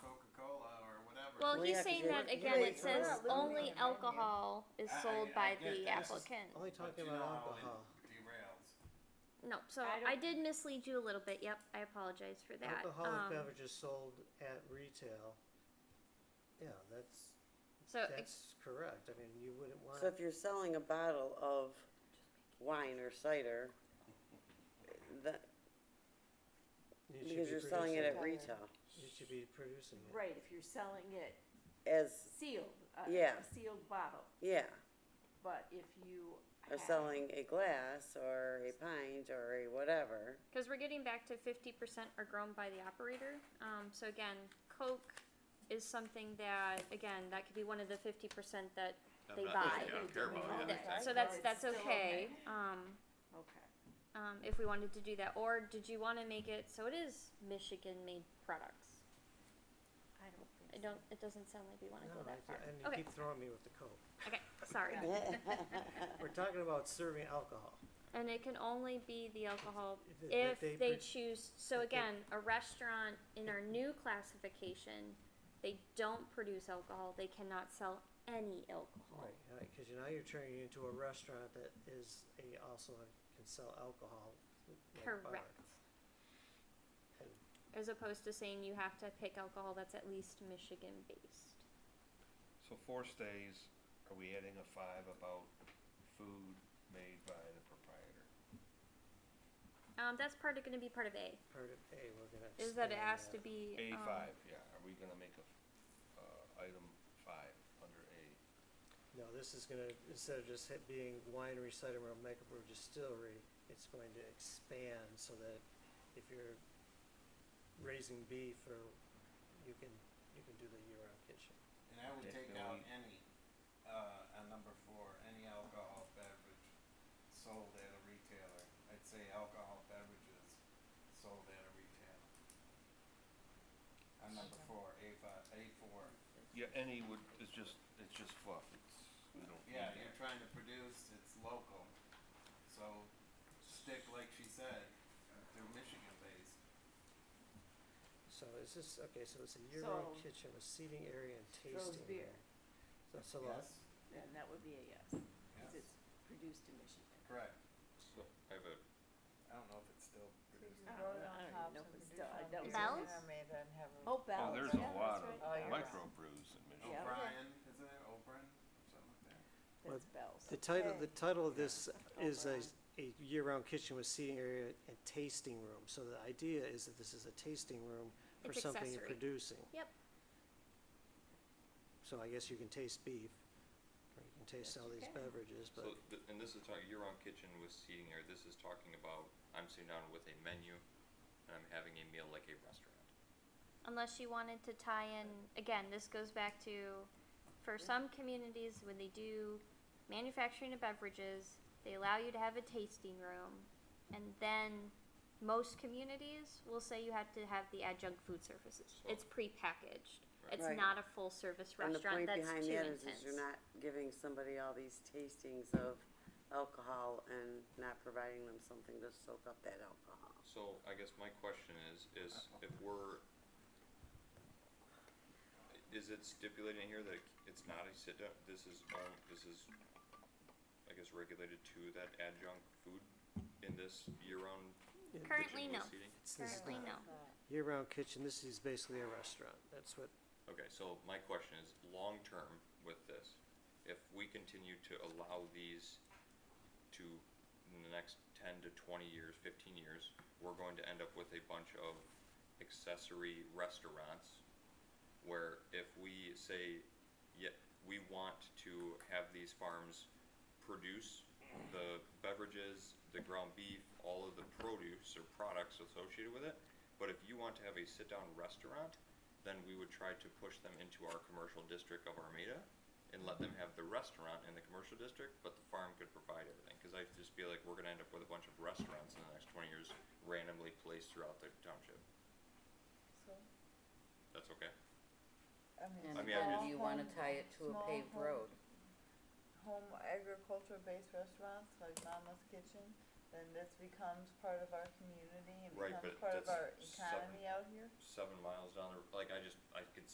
Well, We he's have to saying do that it. again, it Wait, says we're only not literally on the menu. alcohol is I- I- sold I by get the that. This is- applicant. Only But talking you about know how it alcohol. Derails. No, so I don't- I did mislead you a little bit, yep, I apologize for that. Alcoholic Um, beverages sold at retail. Yeah, that's, So, ex- that's correct. I mean, you wouldn't want. Uh, So if you're selling a bottle of wine or cider, that, you should because be you're selling it producing- at retail, You should be producing it. Right, if you're selling it as, sealed, uh, Yeah. a sealed bottle, yeah, but if you or have- selling a glass or a pint or a whatever. cause we're getting back to fifty percent are grown by the operator, um, so again, Coke is something that, again, that could be one of the fifty percent that, They buy. I don't care They about it, Oh, yeah, buy. exactly. so Right. that's, Or it's that's still okay, okay. um, Okay, um, if we wanted to do that, or did you wanna make it, so it is Michigan-made products? I don't think I so. don't, it doesn't sound like we wanna No, go that I- far. And Okay. you keep throwing me with the Coke. Okay, sorry. We're talking about serving alcohol. And it can only be the alcohol If it- if if they, they pre- choose, so if they- again, a restaurant in our new classification, they don't produce alcohol, they cannot sell any alcohol. Right, right, cause you- now you're turning it into a restaurant that is a, also can sell alcohol. like bar. Correct. And- As opposed to saying you have to pick alcohol that's at least Michigan based. So four stays, are we adding a five about food made by the proprietor? Um, that's part of, gonna be part of A, Part of A, we're gonna. is that it expand has to be, A um, five, yeah, are we gonna make a, uh, item five under A? No, this is gonna, instead of just it being winery, cider mill, microbrew, distillery, it's going to expand so that if you're raising beef or, you can, you can do the year-round kitchen. And I would take out any, uh, on number four, any alcohol beverage sold at a retailer. I'd say alcohol beverages sold at a retailer. On number four, A five, A four. Yeah, any would, it's just, it's just fluff, it's, we don't need Yeah, that. you're trying to produce, it's local. So stick, like she said, through Michigan based. So is this, okay, so it's a year-round So- kitchen with seating area and Throws tasting beer. area. So, so uh, that's, Then that would be a yes, cause Yes, it's produced in Michigan. correct. So I have a, I don't know if it's still produced. I in don't that. I know. don't even Tops know and if it's stuff. I don't- Bells? Oh, Bell's, Oh, there's yeah, a lot that's of Oh, right, Bell's. microbrews in Michigan. Yeah. O'Brien, isn't it O'Brien, something like that? That's Bell's. the title, the title of this is a, Overall. a year-round kitchen with seating area and tasting room. So the idea is that this is a tasting room for It's something you're accessory. producing. Yep. So I guess you can taste beef, or you can taste all these can. beverages, so, but th- and this is talking, year-round kitchen with seating area, this is talking about, I'm sitting down with a menu, and I'm having a meal like a restaurant. unless you wanted to tie in again this goes back to for some communities when they do manufacturing of beverages they allow you to have a tasting room and then most communities will say you have to have the adjunct food services it's prepackaged it's Right. not a full service And the restaurant point that's behind too that is, intense is you're not giving somebody all these tastings of alcohol and not providing them something to soak up that alcohol. So I guess my question is, is if we're, is it stipulating here that it's not a sit down, this is, all- this is, I guess, regulated to that adjunct food in this year-round Yeah. currently kitchen no with seating? it's this currently no year-round kitchen, this is basically a restaurant. That's what, Okay, so my question is, long-term with this, if we continue to allow these to, in the next ten to twenty years, fifteen years, we're going to end up with a bunch of accessory restaurants where if we say, yeah, we want to have these farms produce the beverages, the ground beef, all of the produce or products associated with it. But if you want to have a sit-down restaurant, then we would try to push them into our commercial district of Armada and let them have the restaurant in the commercial district, but the farm could provide everything. Cause I just feel like we're gonna end up with a bunch of restaurants in the next twenty years randomly placed throughout the township. That's okay? And I mean, I then just- you wanna tie it to a Small paved home- road. Home agriculture-based restaurants like Mama's Kitchen, then this becomes part of our community and Right, becomes but part of that's our economy out here? Seven miles down the, like, I just, I could